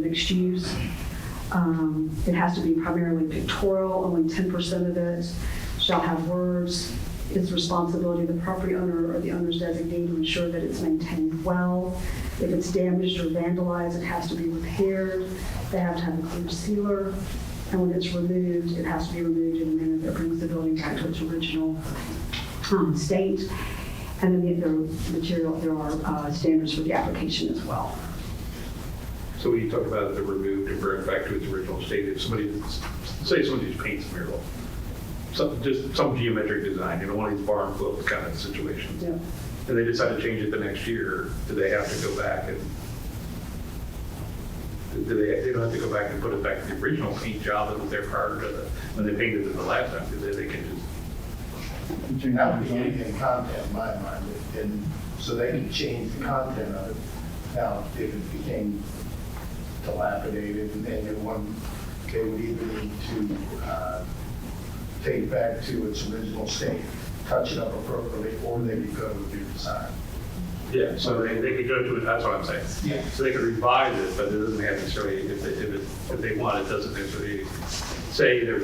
mixed use. Um, It has to be primarily pictorial, only 10% of it shall have words. It's responsibility of the property owner or the owner's designee to ensure that it's maintained well. If it's damaged or vandalized, it has to be repaired. They have to have a clear sealer. And when it's removed, it has to be removed in a manner that brings the building back to its original um, state. And then the other material, there are uh, standards for the application as well. So when you talk about the removed and brought back to its original state, if somebody, say somebody just paints a mural, some, just some geometric design, you know, one of these bar and flow kind of situations, Yeah. and they decide to change it the next year, do they have to go back and, do they, they don't have to go back and put it back to the original paint job that was there prior to the, when they painted it the last time, because they can just, That would be anything content in my mind, and so they can change the content of it. Now, if it became dilapidated and then they want, they would either need to uh, take it back to its original state, touch it up appropriately, or they could go with new design. yeah, so they, they could go to it, that's what I'm saying. Yeah. So they could revise it, but it doesn't have necessarily, if they, if it, if they want, it doesn't necessarily, say there's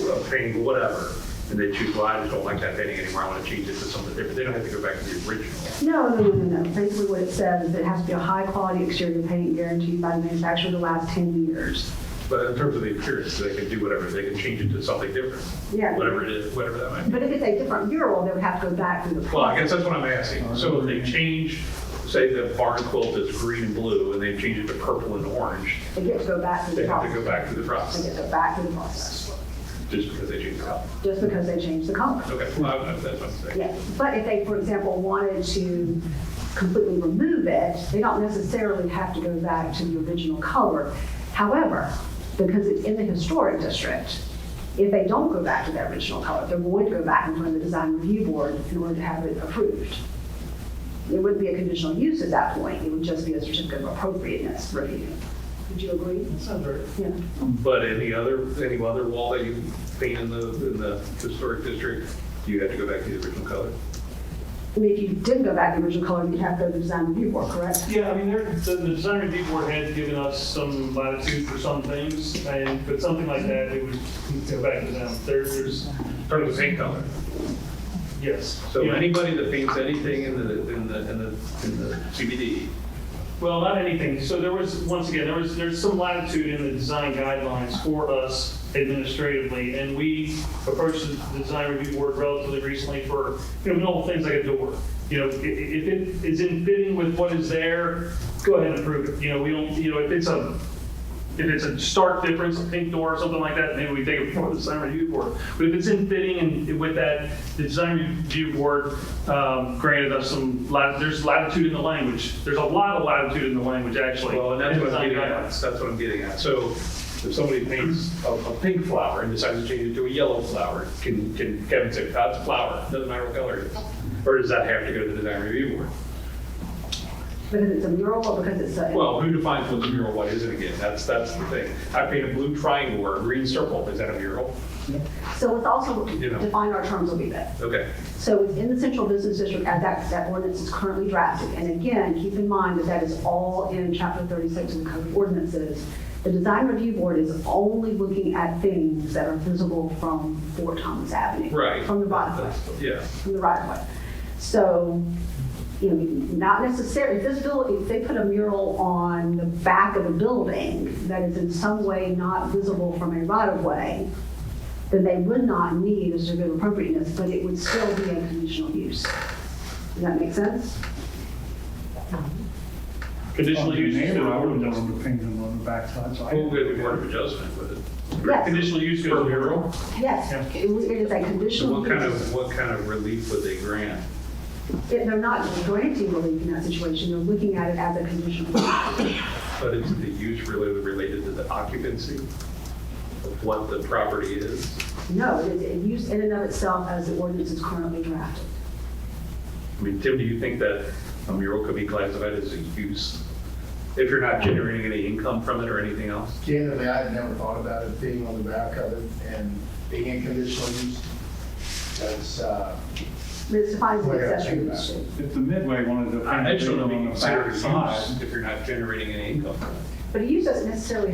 a, a painting, whatever, and they choose, well, I just don't like that painting anymore, I want to change it to something different, they don't have to go back to the original. No, no, no, no. Basically what it says is it has to be a high-quality exterior paint guaranteed by the manufacturer the last 10 years. But in terms of the appearance, they can do whatever, they can change it to something different. Yeah. Whatever it is, whatever that might be. But if it's a different mural, they would have to go back through the Well, I process. guess that's what I'm asking, so if they change, say the barn quilt is green and blue, and they change it to purple and orange, They get to go back through they the have to go process. back through the They process, get to go back through the process, just because they changed the color. just because they changed the color. Okay, well, I- I- that's what I'm saying. Yeah, but if they, for example, wanted to completely remove it, they don't necessarily have to go back to the original color. However, because it's in the historic district, if they don't go back to the original color, they're going to go back in front of the design review board in order to have it approved. It wouldn't be a conditional use at that point, it would just be a certificate of appropriateness review. Would you agree? Yeah. But any other, any other wall that you paint in the, in the historic district, do you have to go back to the original color? I mean, if you didn't go back to the original color, you'd have to go to the design review board, correct? Yeah, I mean, there, the, the design review board had given us some latitude for some things, and, but something like that, it would go back to them. There- There's, Turn the paint color. yes. So Yeah. anybody that paints anything in the, in the, in the, in the CBD, Well, not anything. So there was, once again, there was, there's some latitude in the design guidelines for us administratively, and we approached the design review board relatively recently for, you know, little things like a door. You know, i- i- if it is in fitting with what is there, go ahead and approve it. You know, we don't, you know, if it's a, if it's a stark difference, a pink door or something like that, maybe we take it before the design review board. But if it's in fitting and with that, the design review board um, granted us some, lat- there's latitude in the language. There's a lot of latitude in the language, actually. well, and that's in what I'm design getting at, guidelines. that's what I'm getting at. So if somebody paints a, a pink flower and decides to change it to a yellow flower, can, can Kevin say, that's a flower, doesn't matter what color it is? Or does that have to go to the design review board? Because it's a mural or because it's a. Well, who defines what's a mural, what isn't again? That's, that's the thing. I paint a blue triangle or a green circle, is that a mural? So let's also You know. define our terms a little bit. Okay. So it's in the central business district as that, that ordinance is currently drafted. And again, keep in mind that that is all in chapter 36 of the code of ordinances. The design review board is only looking at things that are visible from Fort Thomas Avenue. Right. From the right of way, Yeah, from the right of way. So, you know, not necessarily, if this bill, if they put a mural on the back of a building that is in some way not visible from a right of way, then they would not need a certificate of appropriateness, but it would still be a conditional use. Does that make sense? Conditional Well, your use. is neighbor, I still- wouldn't want to paint them on the backside, so I. we'll get a word of adjustment with it. Yes. Conditional use goes to mural? Yes, Yeah. it was- it is a So conditional what kind use. of, what kind of relief would they grant? If They're not granting relief in that situation, they're looking at it as a conditional use. But is the use really related to the occupancy of what the property is? No, it is a use in and of itself as the ordinance is currently drafted. I mean, Tim, do you think that a mural could be classified as a use? If you're not generating any income from it or anything else? Candidly, I had never thought about it being on the back of it and being in conditional use. That's, uh, It defines the Well, Oh, yeah, accessory think about use. it. If the Midway wanted to I paint just them don't know if you on the consider it a backside, use if you're not generating any income from it. But he doesn't necessarily